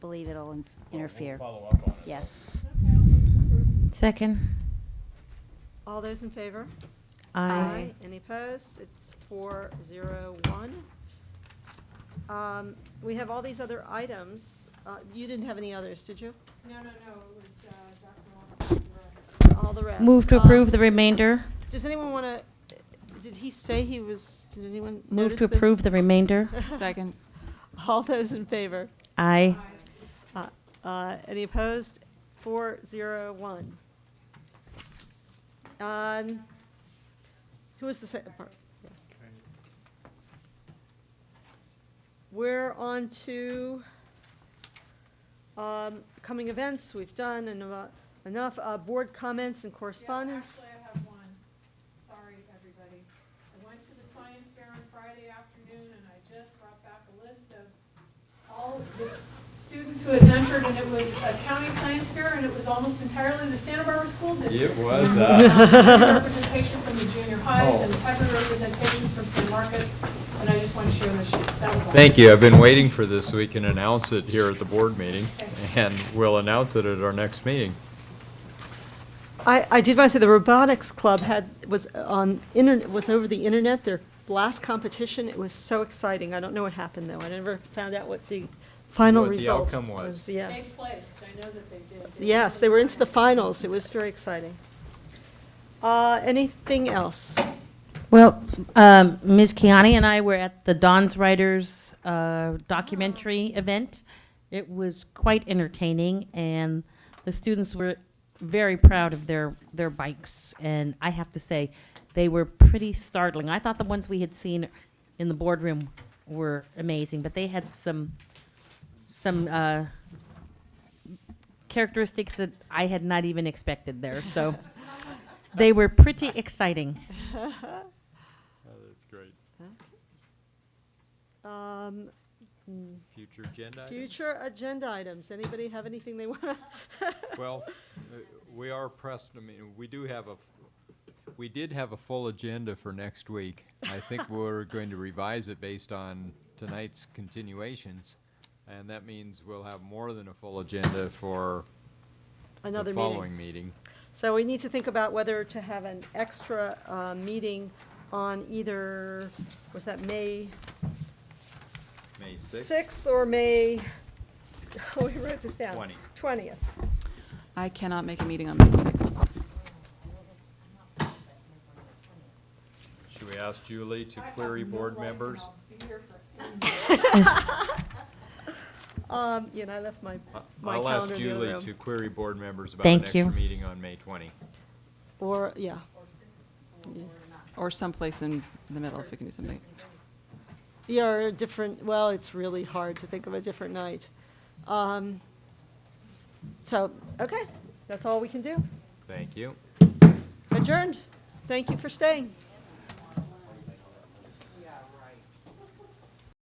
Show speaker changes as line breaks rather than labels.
believe it'll in- interfere.
Follow up on it.
Yes.
Second.
All those in favor? Any opposed? It's four, zero, one. Um, We have all these other items. Uh, You didn't have any others, did you?
No, no, no, it was, uh, Dr. Walker, the rest.
All the rest.
Move to
Um,
approve the remainder.
Does anyone want to, did he say he was, did anyone
Move
notice
to
the-
approve the remainder.
Second.
All those in favor?
Aye.
Uh, uh, Any opposed? Four, zero, one. Um, Who was the second part? Yeah. We're on to um, coming events, we've done eno- enough, Uh, board comments and correspondence.
Yeah, Actually, I have one. Sorry, everybody. I went to the science fair on Friday afternoon, and I just brought back a list of all of the students who had entered, and it was a county science fair, and it was almost entirely the Santa Barbara School District.
It was,
So,
uh,
uh, Representation from the junior highs
Oh.
and every representation from San Marcos, and I just want to share the sheets. That was all.
Thank you. I've been waiting for this so we can announce it here at the board meeting, and we'll announce it at our next meeting.
I, I did want to say the robotics club had, was on, internet, was over the internet, their last competition, it was so exciting. I don't know what happened though, I never found out what the final
What the
result
outcome was.
They
Yes,
placed, I know that they did.
yes, they were into the finals, it was very exciting. Uh, anything else?
Well, um, Ms. Kiani and I were at the Don's Writers uh, documentary event. It was quite entertaining, and the students were very proud of their, their bikes. And I have to say, they were pretty startling. I thought the ones we had seen in the boardroom were amazing, but they had some some uh, characteristics that I had not even expected there. So they were pretty exciting.
That's great.
Um,
Future agenda
future agenda items, anybody have anything they want?
Well, uh, we are pressed, I mean, we do have a, f- we did have a full agenda for next week. I think we're going to revise it based on tonight's continuations, and that means we'll have more than a full agenda for
Another
the
meeting.
following meeting.
So we need to think about whether to have an extra uh, meeting on either, was that May
May
6th or May, we wrote this down.
Twenty.
20th.
I cannot make a meeting on May 6th.
Should we ask Julie to query board members?
Um, You know, I left my,
I-
my
I'll ask
calendar in the
Julie
other
to
room.
query board members about
Thank
an
you.
extra meeting on May 20.
Or, yeah,
Or someplace in the middle, if we can do something.
yeah, or a different, well, it's really hard to think of a different night. Um, So, okay, that's all we can do.
Thank you.
Adjourned. Thank you for staying.